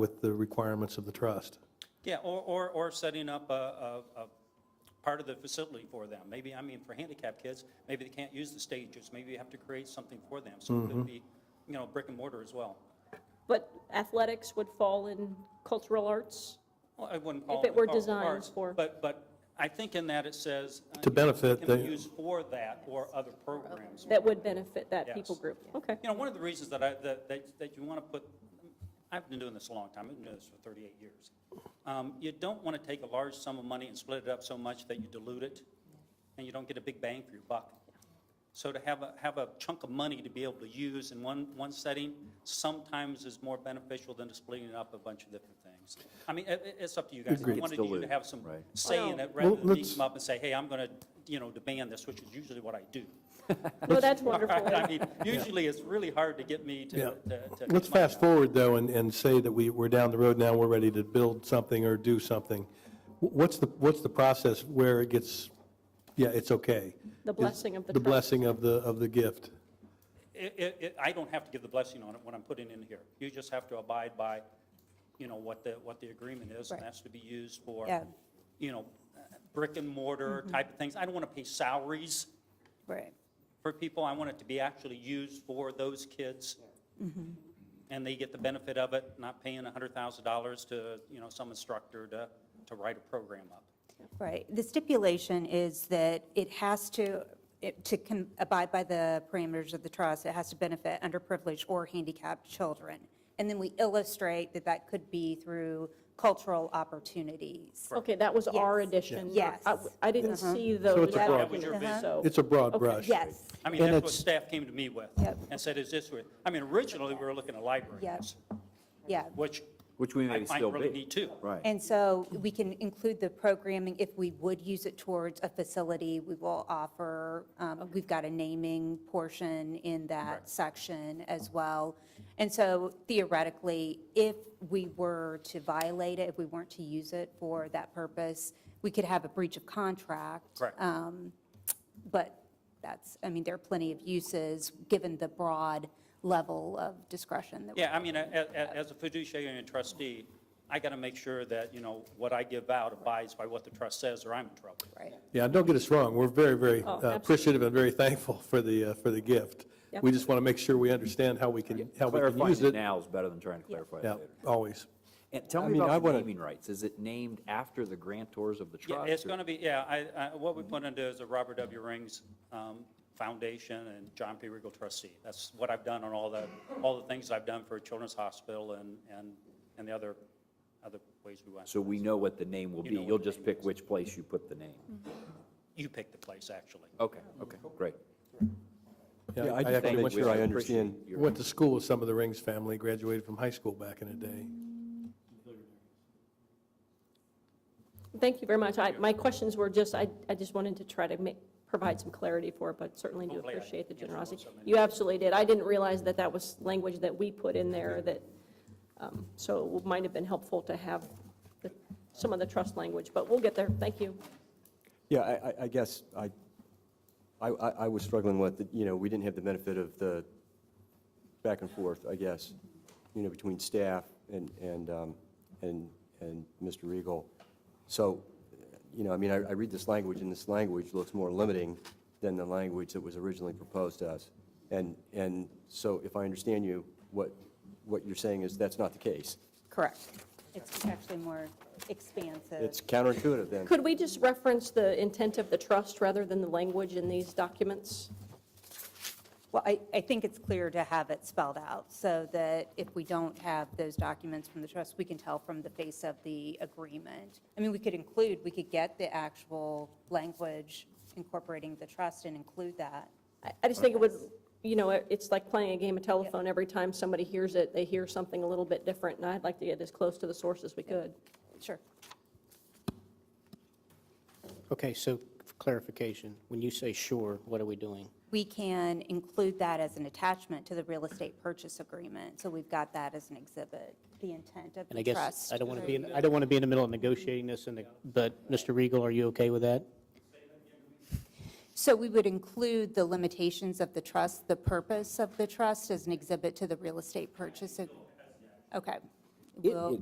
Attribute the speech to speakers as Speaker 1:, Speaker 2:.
Speaker 1: with the requirements of the trust.
Speaker 2: Yeah, or, or, or setting up a, a, a part of the facility for them. Maybe, I mean, for handicapped kids, maybe they can't use the stages, maybe you have to create something for them. So it
Speaker 1: Mm-hmm.
Speaker 2: could be, you know, brick and mortar as well.
Speaker 3: But athletics would fall in cultural arts?
Speaker 2: Well, I wouldn't call it.
Speaker 3: If it were
Speaker 2: cultural
Speaker 3: designed
Speaker 2: arts,
Speaker 3: for-
Speaker 2: But, but I think in that it says. uh,
Speaker 1: To
Speaker 2: you know,
Speaker 1: benefit
Speaker 2: Can be
Speaker 1: the-
Speaker 2: used for that or other programs.
Speaker 3: That would benefit that people
Speaker 2: Yes.
Speaker 3: group? Okay.
Speaker 2: You know, one of the reasons that I, that, that that you want to put, I've been doing this a long time, I've been doing this for 38 years. Um, You don't want to take a large sum of money and split it up so much that you dilute it, and you don't get a big bang for your buck. So to have a, have a chunk of money to be able to use in one, one setting sometimes is more beneficial than to splitting it up a bunch of different things. I mean, it, it's up to you guys. I wanted you to
Speaker 4: dilute,
Speaker 2: have some
Speaker 4: right.
Speaker 2: say in
Speaker 3: Well-
Speaker 2: it rather
Speaker 1: Well,
Speaker 2: than beat
Speaker 1: let's-
Speaker 2: them up and say, hey, I'm going to, you know, demand this, which is usually what I do.
Speaker 3: No, Oh, that's wonderful.
Speaker 2: I mean, usually it's really hard to get me to.
Speaker 1: Yeah.
Speaker 2: to- to
Speaker 1: Let's
Speaker 2: get my-
Speaker 1: fast forward, though, and, and say that we, we're down the road now, we're ready to build something or do something. Wh- What's the, what's the process where it gets, yeah, it's okay?
Speaker 3: The blessing of the
Speaker 1: The
Speaker 3: trust.
Speaker 1: blessing of the, of the gift.
Speaker 2: It, it, it- I don't have to give the blessing on it when I'm putting in here. You just have to abide by, you know, what the, what the agreement is, and
Speaker 5: Right.
Speaker 2: that's to be used for,
Speaker 5: Yeah.
Speaker 2: you know, brick and mortar type of things. I don't want to pay salaries
Speaker 5: Right.
Speaker 2: for people. I want it to be actually used for those kids. And they get the benefit of it, not paying $100,000 to, you know, some instructor to, to write a program up.
Speaker 5: Right. The stipulation is that it has to, it- to con- abide by the parameters of the trust, it has to benefit underprivileged or handicapped children. And then we illustrate that that could be through cultural opportunities.
Speaker 3: Okay, that was our
Speaker 5: Yes.
Speaker 3: addition. not-
Speaker 5: Yes. Uh-huh.
Speaker 3: I I didn't see those.
Speaker 1: it's a broad-
Speaker 2: That was your vision.
Speaker 3: so-
Speaker 1: It's a broad brush.
Speaker 5: Yes,
Speaker 2: I mean,
Speaker 1: And
Speaker 2: that's what
Speaker 1: it's-
Speaker 2: staff came to me with
Speaker 5: Yep.
Speaker 2: and said, is this, where-" I mean, originally, we were looking at
Speaker 5: Yep.
Speaker 2: libraries,
Speaker 5: yeah.
Speaker 2: which
Speaker 4: Which we
Speaker 2: I
Speaker 4: may
Speaker 2: might
Speaker 4: still
Speaker 2: really
Speaker 4: be.
Speaker 2: need too.
Speaker 4: Right.
Speaker 5: And so we can include the programming, if we would use it towards a facility, we will offer, um, we've got a naming portion in that section as well. And so theoretically, if we were to violate it, if we weren't to use it for that purpose, we could have a breach of contract.
Speaker 2: Correct.
Speaker 5: Um, But that's, I mean, there are plenty of uses, given the broad level of discretion that we
Speaker 2: Yeah, I mean, a- a- as a fiduciary and a trustee, I got to make sure that, you know, what I give out abides by what the trust says, or I'm in trouble.
Speaker 5: right.
Speaker 1: Yeah, don't get us wrong, we're very, very uh,
Speaker 3: Oh, absolutely.
Speaker 1: appreciative and very thankful for the, uh, for the gift. We just want to make sure we understand how we can, how we can
Speaker 4: Clarifying
Speaker 1: use
Speaker 4: it
Speaker 1: it.
Speaker 4: now is better than trying to clarify it
Speaker 1: Yeah,
Speaker 4: later.
Speaker 1: always.
Speaker 4: And tell
Speaker 1: I
Speaker 4: me
Speaker 1: mean, I
Speaker 4: about the
Speaker 1: wanna-
Speaker 4: naming rights. Is it named after the grantors of the
Speaker 2: Yeah,
Speaker 4: trust?
Speaker 2: it's
Speaker 4: or-
Speaker 2: going to be, yeah, I, I- what we put into is the Robert W. Rings um, Foundation and John P. Regal trustee. That's what I've done on all the, all the things I've done for Children's Hospital and, and, and the other, other ways we went.
Speaker 4: So we know what the name will be.
Speaker 2: know what
Speaker 4: You'll
Speaker 2: the
Speaker 4: just
Speaker 2: name
Speaker 4: pick
Speaker 2: is.
Speaker 4: which place you put the name.
Speaker 2: You pick the place, actually.
Speaker 4: Okay, okay, great.
Speaker 6: Yeah, I
Speaker 1: actually
Speaker 6: just want to
Speaker 4: Thank you.
Speaker 6: make sure I
Speaker 4: Appreciate
Speaker 6: understand.
Speaker 4: your-
Speaker 1: Went to school with some of the Rings family, graduated from high school back in the day.
Speaker 3: Thank you very much. I, my questions were just, I, I just wanted to try to make, provide some clarity for it, but certainly do
Speaker 2: Hopefully I
Speaker 3: appreciate the
Speaker 2: answered
Speaker 3: generosity.
Speaker 2: most of them.
Speaker 3: You absolutely did. I didn't realize that that was language that we put in there that, um, so it might have been helpful to have the- some of the trust language, but we'll get there. Thank you.
Speaker 6: Yeah, I, I- I guess I, I, I I was struggling with, the- you know, we didn't have the benefit of the back and forth, I guess, you know, between staff and, and, um, and, and Mr. Regal. So, you know, I mean, I, I read this language, and this language looks more limiting than the language that was originally proposed to us. And, and so if I understand you, what, what you're saying is that's not the case.
Speaker 5: Correct. It's actually more expansive.
Speaker 6: It's counterintuitive then.
Speaker 3: Could we just reference the intent of the trust rather than the language in these documents?
Speaker 5: Well, I, I think it's clear to have it spelled out so that if we don't have those documents from the trust, we can tell from the face of the agreement. I mean, we could include, we could get the actual language incorporating the trust and include that.
Speaker 3: I, I just think it would, you know, it- it's like playing a game of telephone. Every time somebody hears it, they hear something a little bit different, and I'd like to get as close to the source as we could.
Speaker 5: Sure.
Speaker 7: Okay, so for clarification, when you say sure, what are we doing?
Speaker 5: We can include that as an attachment to the real estate purchase agreement. So we've got that as an exhibit, the intent of
Speaker 7: And I
Speaker 5: the
Speaker 7: guess,
Speaker 5: trust.
Speaker 7: I don't want to be, in- I don't want to be in the middle of negotiating this, and, the- but, Mr. Regal, are you okay with that?
Speaker 5: So we would include the limitations of the trust, the purpose of the trust as an exhibit to the real estate purchase. ag- Okay. will.